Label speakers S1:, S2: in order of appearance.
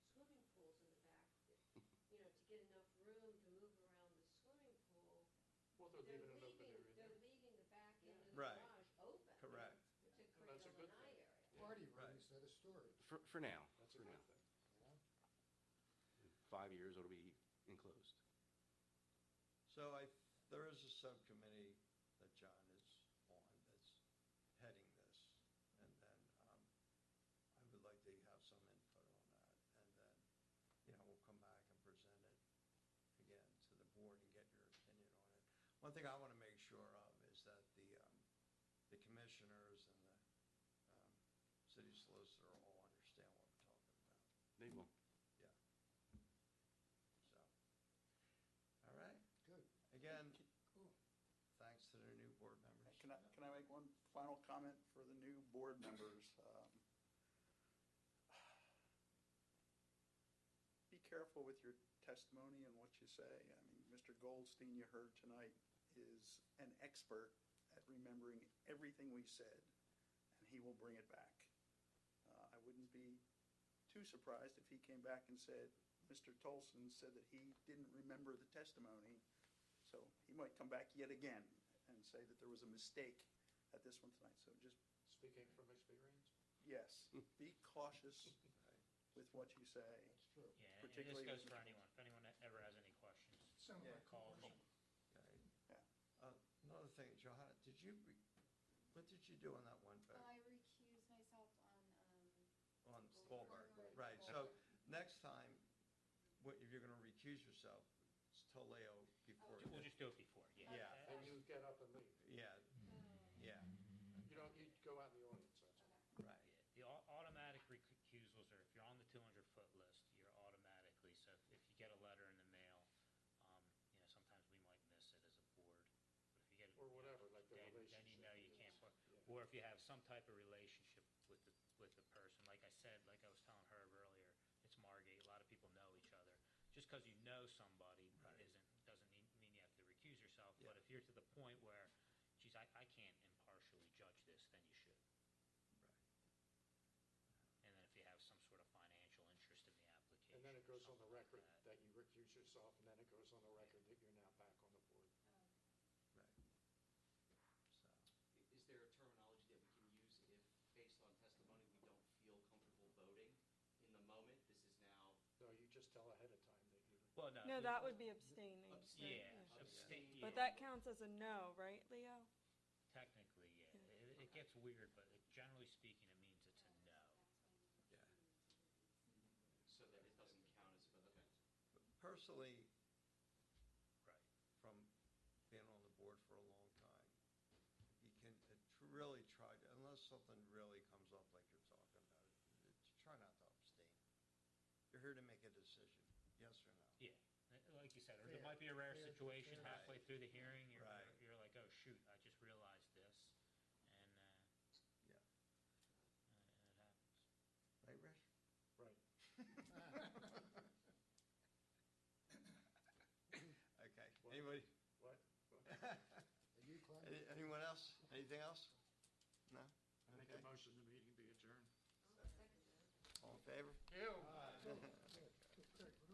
S1: both are leaving it open
S2: leaving-
S1: area there.
S2: They're leaving the back end of the
S3: Right.
S2: garage open to
S3: Correct.
S2: create
S1: that's
S2: a
S1: a
S2: lanai
S1: good thing.
S2: area.
S4: Party
S3: Right.
S4: room instead of storage,
S5: For, for now,
S1: That's a
S5: for
S1: good
S5: now.
S1: thing.
S4: you know?
S5: Five years, it'll be enclosed.
S3: So I, there is a subcommittee that John is on that's heading this. And then um, I would like to have some input on that. And then, you know, we'll come back and present it again to the board and get your opinion on it. One thing I want to make sure of is that the, um, the commissioners and the um, city solicitor all understand what we're talking about.
S5: They will.
S3: Yeah. So, all right.
S4: Good.
S3: Again,
S4: Cool.
S3: thanks to the new board members.
S6: Can I, can I make one final comment for the new board members? Um, Be careful with your testimony and what you say. I mean, Mr. Goldstein, you heard tonight, is an expert at remembering everything we said, and he will bring it back. Uh, I wouldn't be too surprised if he came back and said, Mr. Tolson said that he didn't remember the testimony, so he might come back yet again and say that there was a mistake at this one tonight. So just,
S1: Speaking from experience.
S6: yes, be cautious
S3: Right.
S6: with what you say.
S4: That's true.
S7: Yeah, and this
S6: Particularly
S7: goes
S6: with
S7: for
S6: Mr.
S7: anyone, if anyone e-, ever has any questions,
S4: Sound
S3: Yeah.
S4: like
S7: call me.
S3: Okay.
S6: Yeah.
S3: Uh, Another thing, Johanna, did you, re- what did you do on that one
S8: I
S3: vote?
S8: recuse myself um, on,
S3: On
S8: Goldberg.
S3: Goldberg,
S8: Goldberg.
S3: right, so next time, what, if you're gonna recuse yourself, it's tell Leo before.
S7: We'll just do it before, yeah.
S3: Yeah.
S7: Uh,
S1: And you get up and leave.
S3: Yeah, yeah,
S1: You don't, you go out in the audience, that's all.
S3: right,
S7: yeah. The au- automatic recusals are, if you're on the two hundred foot list, you're automatically, so if- if you get a letter in the mail, um, you know, sometimes we might miss it as a board. But if you get it-
S1: Or whatever, like the
S7: then- Then you
S1: relationship
S7: know you
S1: is,
S7: can't, put-
S1: yeah.
S7: or if you have some type of relationship with the, with the person, like I said, like I was telling Herb earlier, it's Margate, a lot of people know each other. Just because you know somebody
S3: Right.
S7: isn't, doesn't mean mean you have to recuse yourself,
S3: Yeah.
S7: but if you're to the point where, geez, I, I can't impartially judge this, then you should.
S3: right.
S7: And then if you have some sort of financial interest in the application.
S1: And then it
S7: or
S1: goes on the
S7: something like
S1: record
S7: that.
S1: that you recuse yourself, and then it goes on the record that you're now back on the board.
S3: Right. So,
S9: Is there a terminology that we can use if, based on testimony, we don't feel comfortable voting in the moment? This is now
S1: No, you just tell ahead of time that you.
S7: Well,
S8: um,
S7: no.
S10: No,
S7: the-
S10: that would be abstaining.
S9: abstain.
S7: Yeah,
S9: Yeah.
S7: abstain,
S10: But
S7: yeah,
S10: that counts as a no, right, Leo?
S7: technically, yeah. It, it gets weird, but it- generally speaking, it means it's a no.
S3: yeah.
S9: so that it doesn't count as, but, okay.
S3: But Personally,
S7: Right.
S3: from being on the board for a long time. You can uh, tr- really try, to unless something really comes up like you're talking about, uh, try not to abstain. You're here to make a decision, yes or no?
S7: Yeah, Uh, like you said, or there
S4: Fair,
S7: might be a rare
S4: fair,
S7: situation
S4: fair.
S7: halfway through the hearing, you're,
S3: Right.
S7: you're like, oh, shoot, I just realized this. And, uh,
S3: Yeah.
S7: uh, it happens.
S3: Right, Rich?
S1: Right.
S3: Okay,
S1: What?
S3: anybody?
S1: What?
S4: Are you
S3: Any-
S4: climbing?
S3: Anyone else? Anything else? No?
S1: I make
S3: Okay.
S1: a motion the meeting be adjourned.
S2: Oh, I'll second that.
S3: All in favor?